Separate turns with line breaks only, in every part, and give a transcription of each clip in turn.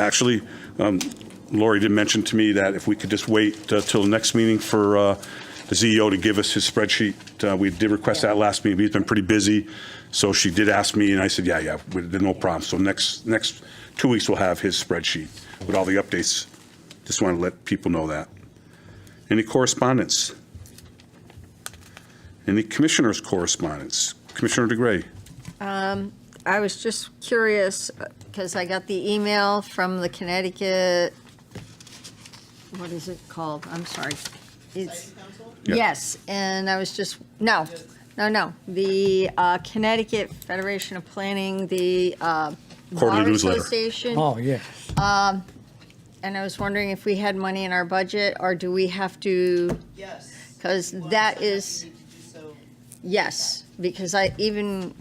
Actually, um, Lori did mention to me that if we could just wait uh, till the next meeting for uh, the CEO to give us his spreadsheet. Uh, We did request that last meeting, but he's been pretty busy. So she did ask me, and I said, yeah, yeah, we- there's no problem. So next, next two weeks, we'll have his spreadsheet with all the updates. Just want to let people know that. Any correspondence? Any commissioners' correspondence? Commissioner DeGray?
I was just curious, because I got the email from the Connecticut, what is it called? I'm sorry. It's,
Yeah.
yes, and I was just, no, no, no. The uh, Connecticut Federation of Planning, the uh,
Quarterly
Bar
newsletter.
Association.
Oh, yeah.
And I was wondering if we had money in our budget, or do we have to,
Yes.
because
Well,
that
I'm happy
is.
to do so.
Yes, because I even,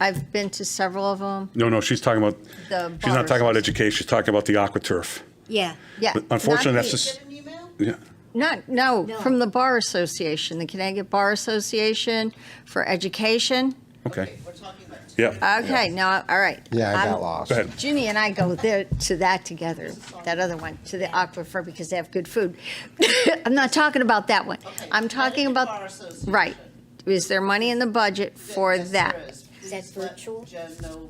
I've been to several of them,
No, no, she's talking about,
the.
she's not
bars.
talking about education, she's talking about the AquaTurf.
Yeah.
Yeah.
But unfortunately,
not
that's
the-
just-
Get an email?
Yeah,
Not, no,
No.
from the Bar Association, the Connecticut Bar Association for Education.
okay,
We're talking about two.
yeah.
Okay, now, all right.
Yeah, I
I'm-
got lost.
Go ahead.
Ginny and I go there, to that together, that other one, to the aquifer because they have good food. I'm not talking about that one.
Okay,
I'm talking
Connecticut
about,
Bar Association.
right. Is there money in the budget
Th-
for
yes,
that?
there is.
Is that
Please let
virtual?
Jen know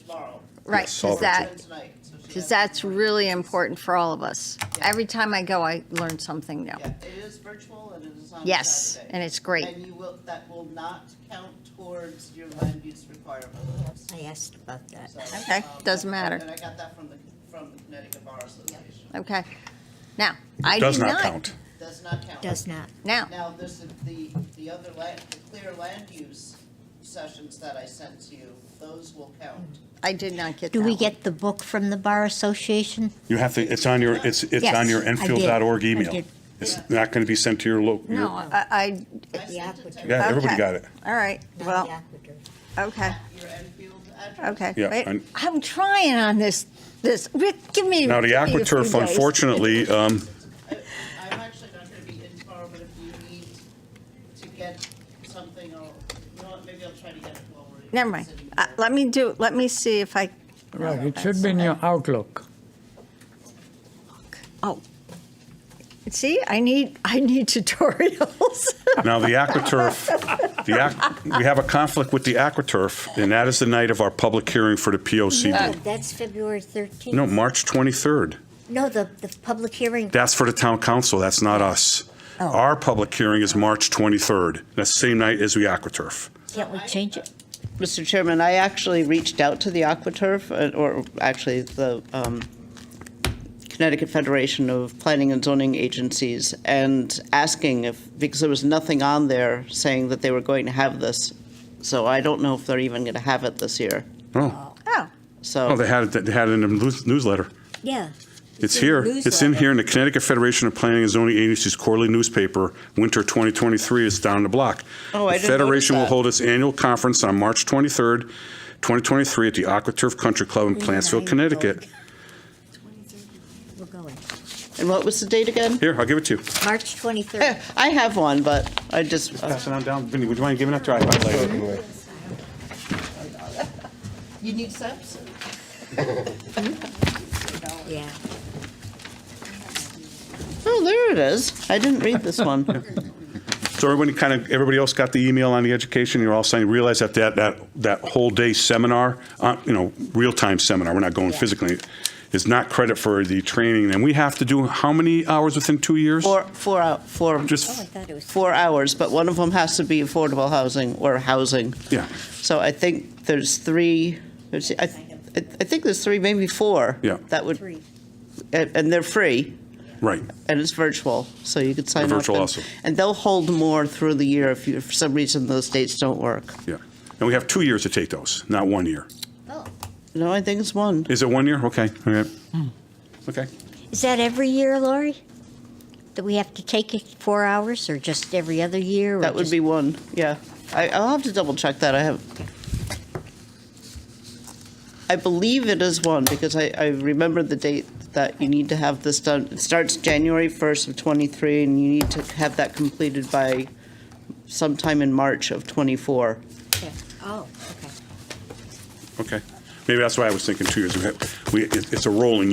tomorrow.
Right,
Yes, all
is that?
Jen tonight, so she
Because
has-
that's really important for all of us.
Yeah.
Every time I go, I learn something new.
Yeah, it is virtual and it is on
Yes,
Saturday.
and it's great.
And you will, that will not count towards your land use requirements.
I asked about that.
So,
Okay,
um,
doesn't
I-
matter.
And I got that from the, from the Connecticut Bar Association.
Okay. Now, I
Does
did
not
not.
count.
Does not count.
Does not.
Now,
Now, there's the- the, the other land, the clear land use sessions that I sent to you, those will count.
I did not get that
Do we
one.
get the book from the Bar Association?
You have to, it's on your, it's, it's
Yes,
on your
I did.
Enfield.org
I
email.
did.
It's not going to be sent to your local,
No,
uh,
yeah,
I, I,
I sent it to
applicant.
your
everybody
okay.
got it.
all right,
Not
well,
Yakuter.
okay,
your Enfield address.
okay.
Yeah,
Wait,
and-
I'm trying on this, this, Rick, give me.
Now, the
give me a few
AquaTurf,
days.
unfortunately, um,
I'm actually not gonna be in tomorrow, but if you need to get something, I'll, you know what, maybe I'll try to get it while we're.
Never mind.
sitting
Uh,
here.
Let me do, let me see if I.
Right, it should be in your Outlook.
Oh. See, I need, I need tutorials.
now the AquaTurf, the, Aqu- we have a conflict with the AquaTurf, and that is the night of our public hearing for the
No,
POCD.
Uh, that's February 13th.
No, March 23rd.
No, the, the public hearing.
That's for the town council, that's not us.
Oh.
Our public hearing is March 23rd, that's the same night as the AquaTurf.
Can't we change it?
Mr. Chairman, I actually reached out to the AquaTurf, uh, or actually the um, Connecticut Federation of Planning and Zoning Agencies, and asking if, because there was nothing on there saying that they were going to have this. So I don't know if they're even going to have it this year.
Oh,
Oh,
oh,
So
they had it, they had it in the news- newsletter.
Yeah.
It's
in
here,
the
it's in
newsletter.
here in the Connecticut Federation of Planning and Zoning Agencies quarterly newspaper, winter 2023, it's down the block.
Oh,
The
I didn't notice
Federation will
that.
hold its annual conference on March 23rd, 2023, at the AquaTurf Country Club in Plantsville, Connecticut.
We're going.
And what was the date again?
Here, I'll give it to you.
March 23rd.
I have one, but I just,
Pass it on down, Vinnie, would you mind giving that to our highlighter?
you need steps?
Yeah.
Oh, there it is. I didn't read this one.
So everybody kind of, everybody else got the email on the education, you're all saying, realize that that, that, that whole day seminar, uh, you know, real-time seminar, we're not going physically, is not credit for the training, and we have to do how many hours within two years?
Four, four, hou- four,
Oh, I
Just,
thought it was.
four hours, but one of them has to be affordable housing or housing.
yeah,
So I think there's three, there's, I, I I think there's three, maybe four.
Yeah.
That would,
Three.
and, and they're free,
right.
and it's virtual, so you could sign up.
virtual
and-
also.
And they'll hold more through the year if you, if for some reason those dates don't work.
Yeah. And we have two years to take those, not one year.
Oh.
No, I think it's one.
Is it one year? Okay. all right. Okay.
Is that every year, Lori? That we have to take it four hours or just every other year? or
That would
just-
be one, yeah. I, I'll have to double check that, I have. I believe it is one, because I, I remember the date that you need to have this done. It starts January 1st of '23, and you need to have that completed by sometime in March of '24.
Yeah. Oh, okay.
Okay. Maybe that's why I was thinking two years. We, it- it's a rolling